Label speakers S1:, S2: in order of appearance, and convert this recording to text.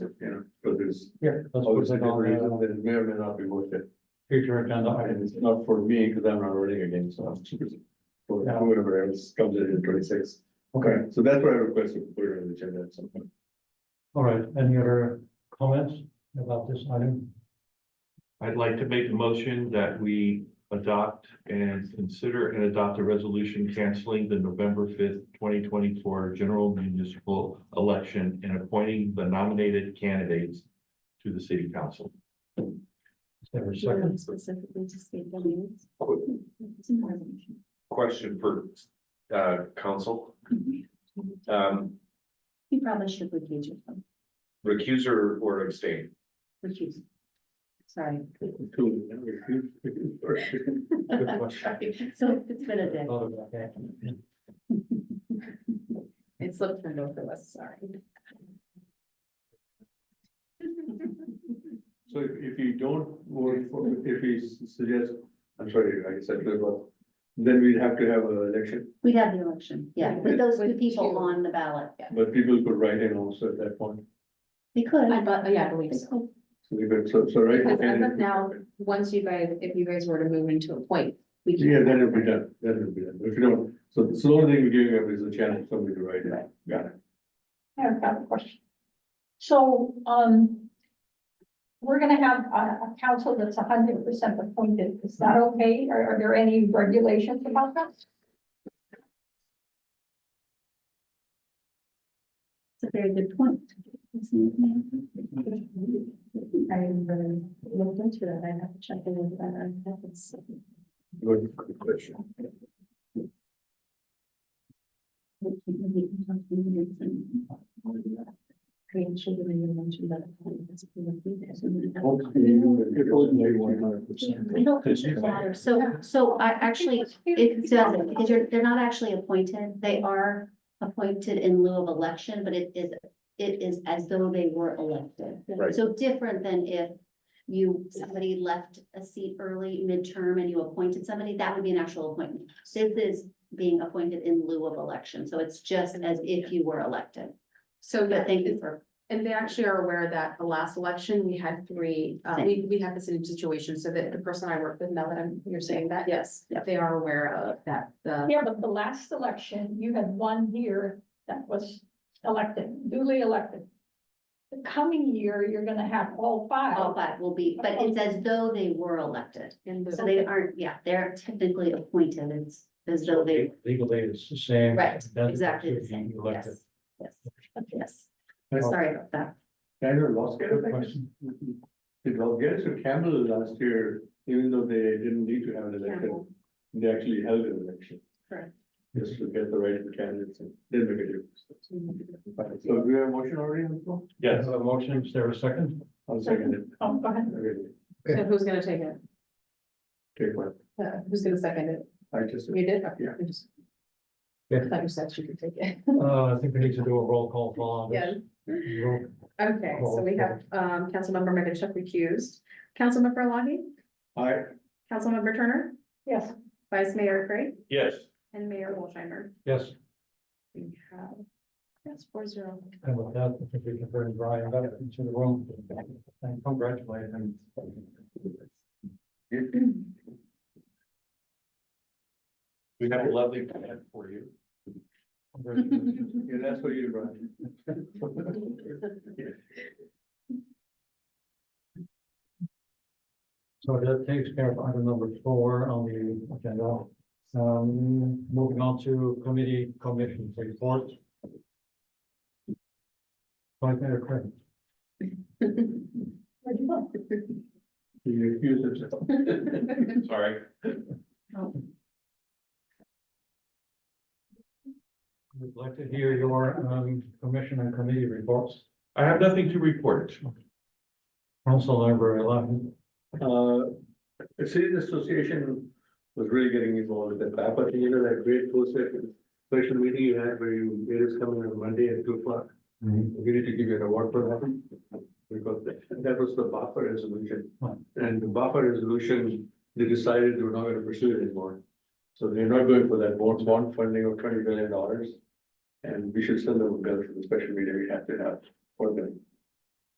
S1: you know, because there's
S2: Here, let's
S1: always
S2: put
S1: a
S2: it
S1: good reason
S2: on the
S1: that it may or may not be worth it.
S2: future agenda
S1: And
S2: items.
S1: it's not for me, because I'm not running again, so. For
S2: Yeah.
S1: whoever else comes in in twenty-six. Okay, so that's what I requested, put it on the agenda at some point.
S2: All right, any other comments about this item?
S3: I'd like to make a motion that we adopt and consider and adopt a resolution canceling the November fifth, twenty twenty-four general municipal election and appointing the nominated candidates to the city council.
S2: Is there a
S4: Do you
S2: second?
S4: want Specifically to state the names. It's important.
S5: question for uh council. Um,
S4: You probably should recuse yourself,
S5: recuse or or abstain?
S4: recuse. Sorry. Sorry. So it's been a day.
S2: Oh, okay.
S4: It slipped from both of us, sorry.
S1: So if, if you don't vote for, if you s- suggest, I'm sorry, I said, but then we'd have to have an election,
S4: We'd have the election, yeah, with those two people on the ballot, yeah.
S1: but people could write in also at that point.
S4: They could.
S6: I but, yeah, I believe
S4: They
S6: so.
S4: could.
S1: So we could, so, so right.
S6: Because
S1: okay,
S6: as of
S1: then-
S6: now- Once you guys, if you guys were to move into a point, we can.
S1: Yeah, then it'll be done, then it'll be done, if you don't, so, so the only thing we're giving up is a chance for somebody to write it, got it.
S7: I have got a question. So, um. We're gonna have a, a council that's hundred percent appointed. Is that okay? Are, are there any regulations about that?
S4: It's a very good point. I really looked into that, I have to check in with that, I have to.
S1: Good good question.
S4: Creation of the mention that. I don't think it matters. So, so I actually, it doesn't, because you're, they're not actually appointed. They are appointed in lieu of election, but it is, it is as though they were elected.
S5: Right.
S4: So different than if you, somebody left a seat early midterm and you appointed somebody, that would be an actual appointment. This is being appointed in lieu of election, so it's just as if you were elected.
S6: So, yeah,
S4: But thank you for,
S6: and they actually are aware that the last election, we had three, uh, we, we had the same situation, so that the person I work with, now that I'm, you're saying that, yes.
S4: Yeah.
S6: They are aware of that, the,
S7: Yeah, but the last election, you had one year that was elected, duly elected. The coming year, you're gonna have all five.
S4: all five will be, but it's as though they were elected.
S6: in
S4: So
S6: the,
S4: they aren't, yeah, they're technically appointed, it's as though they,
S2: Legally, it's the same.
S4: right,
S2: It doesn't
S4: exactly the
S2: have to be
S4: same,
S2: elected.
S4: yes. Yes, yes, sorry about that.
S1: Guys are lost.
S2: Good question.
S1: Did Rogers or Campbell last year, even though they didn't need to have an election,
S4: Campbell.
S1: they actually held an election.
S4: Correct.
S1: Just to get the right candidates and then make a difference. So do we have a motion already on the floor?
S2: I have a motion, is there a second?
S1: I'll second it.
S7: Oh, go ahead.
S1: Okay,
S6: so who's gonna take it?
S1: Take one.
S6: Uh, Who's gonna second it?
S1: I just.
S6: You did?
S1: Yeah.
S6: I just-
S2: Yeah.
S6: I thought you said she could take it.
S2: Uh, I think we need to do a roll call for all of this. Roll-
S6: Okay, so we have, um, Councilmember Meganchuk recused, Councilmember Lahey,
S1: I,
S6: Councilmember Turner,
S7: Yes,
S6: Vice Mayor Craig,
S3: Yes.
S6: and Mayor Wolsheimer.
S2: Yes,
S6: We have, yes, four zero.
S2: and with that, I think we can bring Brian back into the room and congratulate him.
S3: We have a lovely plan for you.
S1: yeah, that's what you brought.
S2: So that takes care of item number four on the agenda. Um, moving on to committee commission report. Vice Mayor Craig.
S7: where'd you go?
S1: You accuse yourself.
S3: Sorry.
S2: We'd like to hear your um commission and committee reports.
S3: I have nothing to report.
S2: Councilmember Lahey.
S1: Uh, the Cities Association was really getting involved with that, back, but you know, that great post-session special meeting you had where you made us come in on Monday at two o'clock. We need to give you an award for that, because that- that was the buffer resolution.
S2: Right.
S1: And the buffer resolution, they decided they were not gonna pursue it anymore. So they're not going for that bond, bond funding of twenty billion dollars. And we should send them a bill for the special meeting we have to have for them.